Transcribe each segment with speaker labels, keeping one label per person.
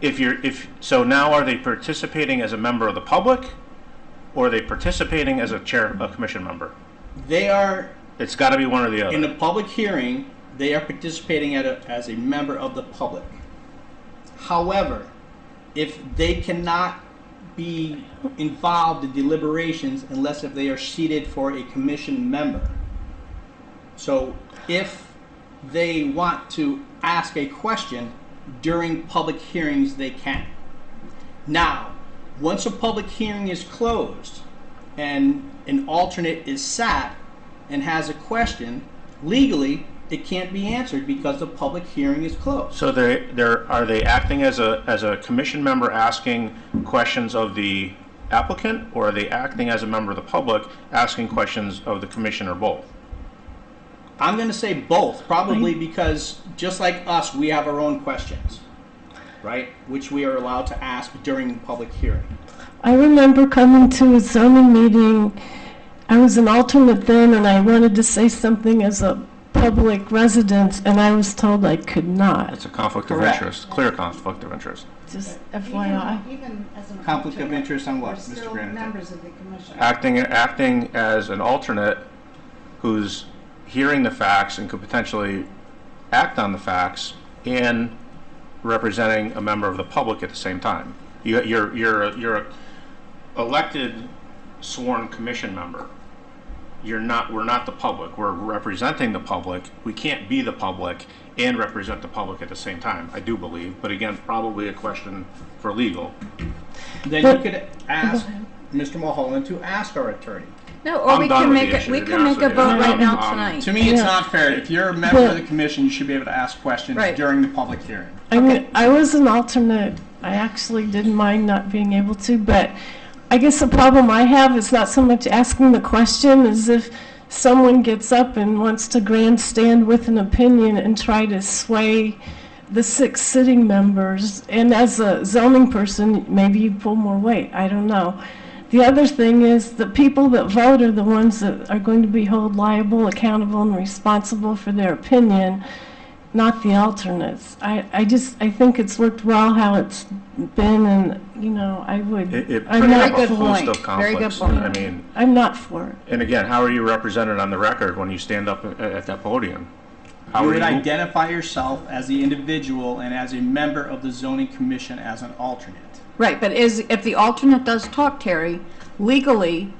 Speaker 1: if you're, if, so now are they participating as a member of the public? Or are they participating as a chair, a commission member?
Speaker 2: They are,
Speaker 1: It's gotta be one or the
Speaker 2: in
Speaker 1: other.
Speaker 2: a public hearing, they are participating at a, as a member of the public. However, if they cannot be involved in deliberations unless if they are seated for a commission member. So if they want to ask a question during public hearings, they can. Now, once a public hearing is closed and an alternate is sat and has a question, legally, it can't be answered because the public hearing is closed.
Speaker 1: So they, they're, are they acting as a, as a commission member asking questions of the applicant? Or are they acting as a member of the public asking questions of the commission or both?
Speaker 2: I'm going to say both, probably because just like us, we have our own questions, right? Which we are allowed to ask during public hearing.
Speaker 3: I remember coming to a zoning meeting, I was an alternate then, and I wanted to say something as a public resident, and I was told I could not.
Speaker 1: It's a conflict of
Speaker 2: Correct.
Speaker 1: interest, clear conflict of interest.
Speaker 3: Just
Speaker 4: Even-
Speaker 3: FYI.
Speaker 4: Even as an.
Speaker 2: Conflict of
Speaker 4: alternate,
Speaker 2: interest on what, Uh,
Speaker 4: we're
Speaker 2: Mr.
Speaker 4: still
Speaker 2: Granite?
Speaker 4: members of the commission.
Speaker 1: acting acting as an alternate who's hearing the facts and could potentially act on the facts and representing a member of the public at the same time. You, you're you're a, you're a elected sworn commission member. You're not. We're not the public. We're representing the public. We can't be the public and represent the public at the same time. I do believe, but again, probably a question for legal.
Speaker 2: Then you could ask Mr. Mulholland to ask our attorney.
Speaker 5: No, or
Speaker 1: I'm
Speaker 5: we
Speaker 1: done
Speaker 5: can
Speaker 1: with
Speaker 5: make
Speaker 1: the
Speaker 5: a,
Speaker 1: issue,
Speaker 5: we
Speaker 1: to be
Speaker 5: can
Speaker 1: honest
Speaker 5: make a
Speaker 1: with you.
Speaker 5: vote right now
Speaker 1: Um,
Speaker 5: tonight.
Speaker 2: To me, it's
Speaker 3: Yeah.
Speaker 2: not fair. If you're a member of
Speaker 3: Well-
Speaker 2: the commission, you should be able to ask questions
Speaker 5: Right.
Speaker 2: during the public hearing.
Speaker 3: I mean, I was an alternate. I actually didn't mind not being able to, but I guess the problem I have is not so much asking the question as if someone gets up and wants to grandstand with an opinion and try to sway the six sitting members. And as a zoning person, maybe you pull more weight. I don't know. The other thing is the people that vote are the ones that are going to be held liable, accountable, and responsible for their opinion not the alternates. I, I just, I think it's worked well how it's been, and, you know, I
Speaker 1: It,
Speaker 3: would,
Speaker 1: it
Speaker 3: I'm
Speaker 1: brings up
Speaker 3: not,
Speaker 1: a
Speaker 5: good
Speaker 1: host
Speaker 5: point.
Speaker 1: of
Speaker 5: Very good
Speaker 1: conflicts.
Speaker 5: point.
Speaker 1: I mean.
Speaker 3: I'm not for it.
Speaker 1: And again, how are you represented on the record when you stand up at, at that podium? How
Speaker 2: You
Speaker 1: are
Speaker 2: would identify yourself as the individual and as a member of the zoning commission as an alternate.
Speaker 5: Right, but is, if the alternate does talk, Terry, legally,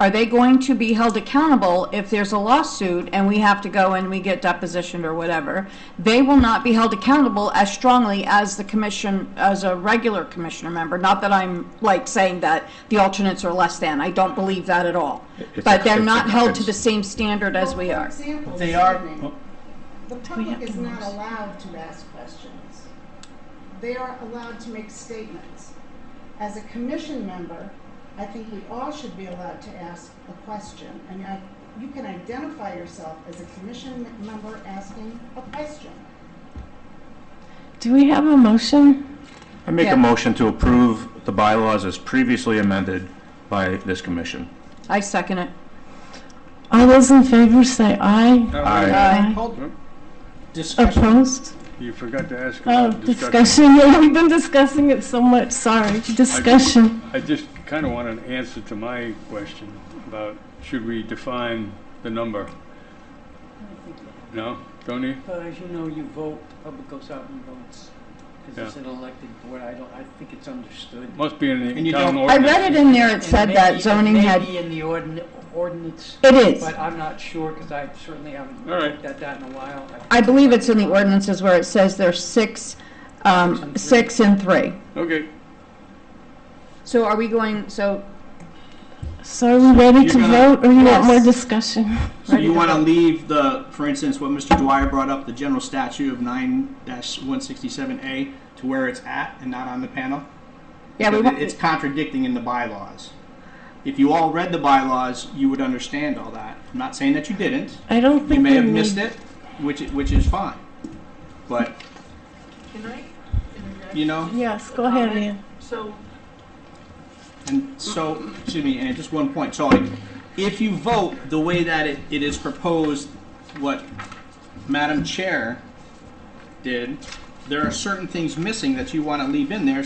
Speaker 5: are they going to be held accountable if there's a lawsuit and we have to go and we get depositioned or whatever? They will not be held accountable as strongly as the commission, as a regular commissioner member. Not that I'm like saying that the alternates are less than, I don't believe that at all.
Speaker 1: a-
Speaker 5: But they're
Speaker 1: it's a-
Speaker 5: not held to
Speaker 1: it's-
Speaker 5: the same standard as we
Speaker 4: Well,
Speaker 5: are.
Speaker 4: For example,
Speaker 2: They are,
Speaker 4: Sidney,
Speaker 2: oh,
Speaker 4: the
Speaker 3: have
Speaker 4: public is
Speaker 3: to
Speaker 4: not
Speaker 3: notice?
Speaker 4: allowed to ask questions. They are allowed to make statements. As a commission member, I think we all should be allowed to ask a question. And I, you can identify yourself as a commission member asking a question.
Speaker 3: Do we have a motion?
Speaker 1: I make
Speaker 5: Yeah.
Speaker 1: a motion to approve the bylaws as previously amended by this commission.
Speaker 5: I second it.
Speaker 3: All those in favor say aye.
Speaker 1: Aye.
Speaker 5: Aye.
Speaker 2: hold- Discussion.
Speaker 3: Opposed?
Speaker 6: You forgot to ask
Speaker 3: Oh,
Speaker 6: about discussion.
Speaker 3: discussion, yeah, we've been discussing it so much, sorry. Discussion.
Speaker 6: I just kind of want an answer to my question about should we define the number? No? Don't you?
Speaker 7: But as you know, you vote, the public goes out and votes. Because it's
Speaker 6: Yeah.
Speaker 7: an elected board, I don't, I think it's understood.
Speaker 6: Must be in
Speaker 2: And you
Speaker 6: the town
Speaker 2: don't-
Speaker 5: I
Speaker 6: ordinance.
Speaker 5: read it in there, it
Speaker 7: And
Speaker 5: said
Speaker 7: may be-
Speaker 5: that
Speaker 7: it
Speaker 5: zoning
Speaker 7: may
Speaker 5: had,
Speaker 7: be in the ordin- ordinance,
Speaker 5: it is.
Speaker 7: but I'm not sure, because I certainly haven't
Speaker 6: All right.
Speaker 7: looked at that in a while. I-
Speaker 5: I believe it's in the ordinances where it says there's six, um, six and three.
Speaker 6: Okay.
Speaker 5: So are we going, so,
Speaker 3: So are we ready
Speaker 6: You're
Speaker 3: to
Speaker 6: gonna-
Speaker 3: vote, or you want
Speaker 5: Yes.
Speaker 3: more discussion?
Speaker 2: So you want to leave the, for instance, what Mr. Dwyer brought up, the general statute of nine one sixty-seven A to where it's at and not on the panel?
Speaker 5: yeah, we
Speaker 2: Because it- It's
Speaker 5: want,
Speaker 2: contradicting in the bylaws. If you all read the bylaws, you would understand all that. I'm not saying that you didn't.
Speaker 3: I don't think we
Speaker 2: You may have missed
Speaker 3: need-
Speaker 2: it, which, i- which is fine. But,
Speaker 8: Can I interject?
Speaker 2: you know,
Speaker 3: Yes, go ahead, Ann.
Speaker 8: So,
Speaker 2: and so, excuse me, and just one point, so like, if you vote the way that it, it is proposed, what Madam Chair did, there are certain things missing that you want to leave in there